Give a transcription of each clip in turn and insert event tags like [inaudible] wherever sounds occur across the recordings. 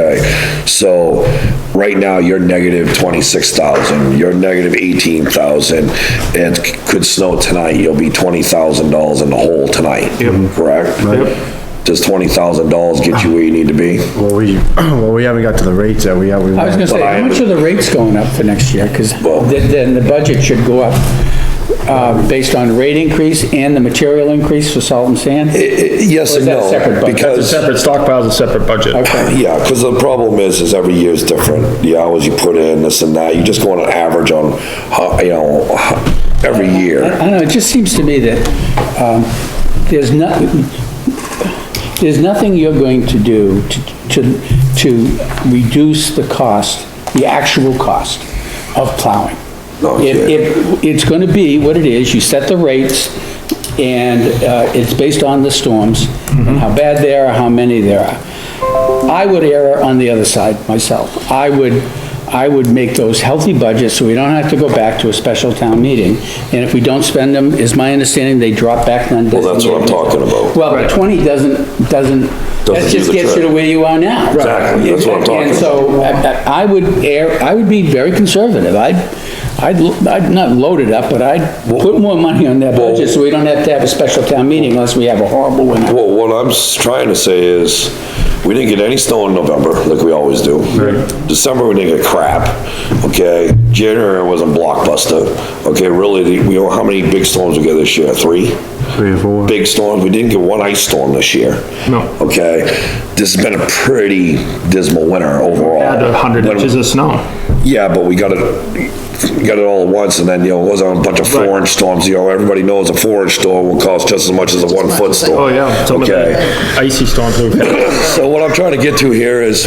Okay, so right now you're negative twenty-six thousand, you're negative eighteen thousand, and c- could snow tonight, you'll be twenty thousand dollars in the hole tonight. Yep. Correct? Yep. Does twenty thousand dollars get you where you need to be? Well, we, [clears throat] well, we haven't got to the rates that we have. I was gonna say, how much are the rates going up for next year? Because then, then the budget should go up, uh, based on rate increase and the material increase for salt and sand? Yes Or is and that a no, separate budget? because. Separate stockpiles, a separate budget. Okay, Yeah, because the problem is, is every year is different, the hours you put in, this and that, you just go on an average on, how- you know, how- every I year. don't know, it just seems to me that, um, there's not, there's nothing you're going to do to, to, to reduce the cost, the actual cost of plowing. No, If, yeah. if, it's gonna be what it is, you set the rates, and, uh, it's based on the storms, and how bad they are, how many there are. I would err on the other side myself. I would, I would make those healthy budgets, so we don't have to go back to a special town meeting. And if we don't spend them, is my understanding, they drop back on. Well, that's what I'm talking about. Well, but twenty doesn't, doesn't, that do just the gets you trick. to where you are now. Exactly, that's what I'm talking And so, I, I- I would err, I would be very conservative, I'd, I'd, l- I'd not load it up, but I'd put more money on that budget, so we don't have to have a special town meeting unless we have a horrible winter. Well, what I'm s- trying to say is, we didn't get any snow in November, like we always do. December, we didn't get crap, okay? January was a blockbuster, okay, really, the- we know how many big storms we get this year, three? Three or four. Big storms, we didn't get one ice storm this year. No. Okay, this has been a pretty dismal winter overall. Add a hundred When- inches of snow. Yeah, but we got it, got it all at once, and then, you know, it was on a bunch of four-inch storms, you know, everybody knows a four-inch storm will cost just as much as a one-foot storm. Oh, yeah. Some of the Okay, Icy storms we've had. so what I'm trying to get to here is,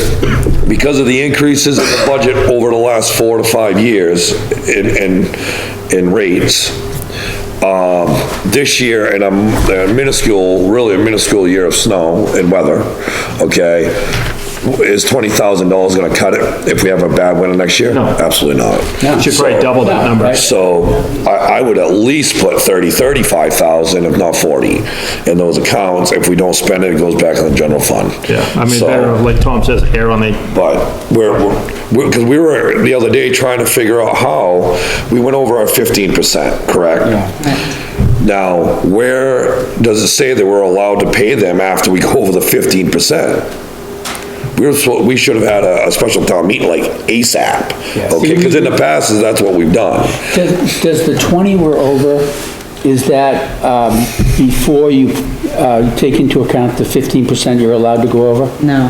because of the increases in the budget over the last four to five years in, in, in rates, um, this year, in a m- a minuscule, really a minuscule year of snow and weather, okay, is twenty thousand dollars gonna cut it if we have a bad winter next year? No. Absolutely not. No. Should probably double that number. So I, I would at least put 30, 35,000, if not 40, in those accounts. If we don't spend it, it goes back in the general fund. Yeah, I mean, So- better, like Tom says, air on the, But we're, we're, because we were the other day trying to figure out how, we went over our 15%, correct? Now, where does it say that we're allowed to pay them after we go [laughs] over the 15%? We were, supposed- we should have had a, a special town meeting like ASAP, Yes. okay? Because in the past, that's what we've done. Does, does the twenty we're over, is that, um, before you, uh, take into account the fifteen percent you're allowed to go over? No.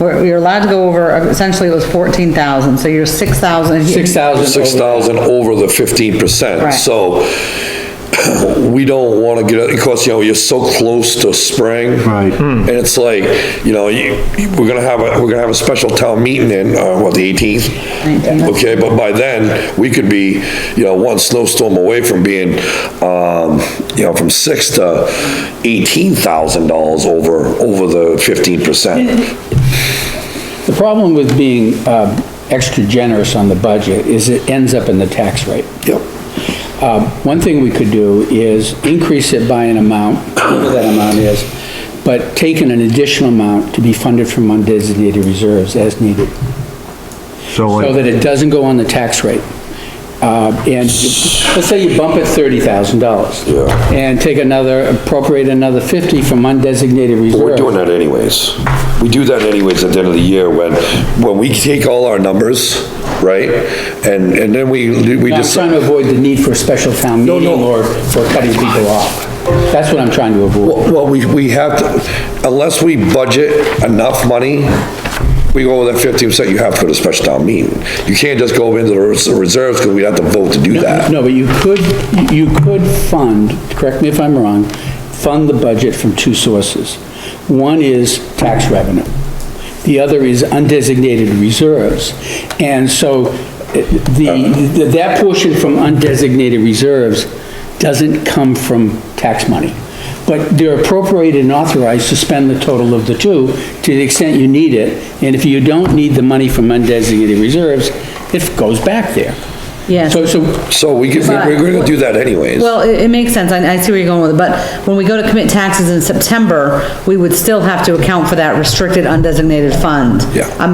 We're, you're allowed to go over, essentially it was fourteen thousand, so you're six thousand. Six thousand? six thousand over the fifteen percent, Right. so [clears throat] we don't wanna get, it because, you know, you're so close to spring. Right. And it's like, you know, you, you- we're gonna have a, we're gonna have a special town meeting in, uh, what, the eighteenth? 19th. Okay, but by then, we could be, you know, one snowstorm away from being, um, you know, from six to eighteen thousand dollars over, over the fifteen percent. The problem with being, uh, extra generous on the budget is it ends up in the tax rate. Yep. Um, One thing we could do is increase it by an amount, whatever that amount is, but take in an additional amount to be funded from undesignated reserves as needed, So so like, that it doesn't go on the tax rate. Uh, And let's say you bump it $30,000. Yeah. And take another, appropriate another 50 from undesignated We're doing reserves. that anyways. We do that anyways at the end of the year when, when we take all our numbers, right? And, and then we, we No, I'm just, trying to avoid the need for a special town No, meeting no. or for cutting people off. That's what I'm trying to avoid. well, we, we have to, unless we budget enough money, we go with that fifteen percent you have for the special town meeting. You can't just go into the res- reserves because we have to vote to do that. No, but you could, you could fund, correct me if I'm wrong, fund the budget from two sources. One is tax revenue. The other is undesignated reserves. And so eh, the, that portion from undesignated reserves doesn't come from tax money. But they're appropriated and authorized to spend the total of the two to the extent you need it. And if you don't need the money from undesignated reserves, it goes back there. Yes. So, so So we, could- we're gonna do that anyways. Well, it, it makes sense, I, I see where you're going with it, but when we go to commit taxes in September, we would still have to account for that restricted undesignated fund. Yeah. I'm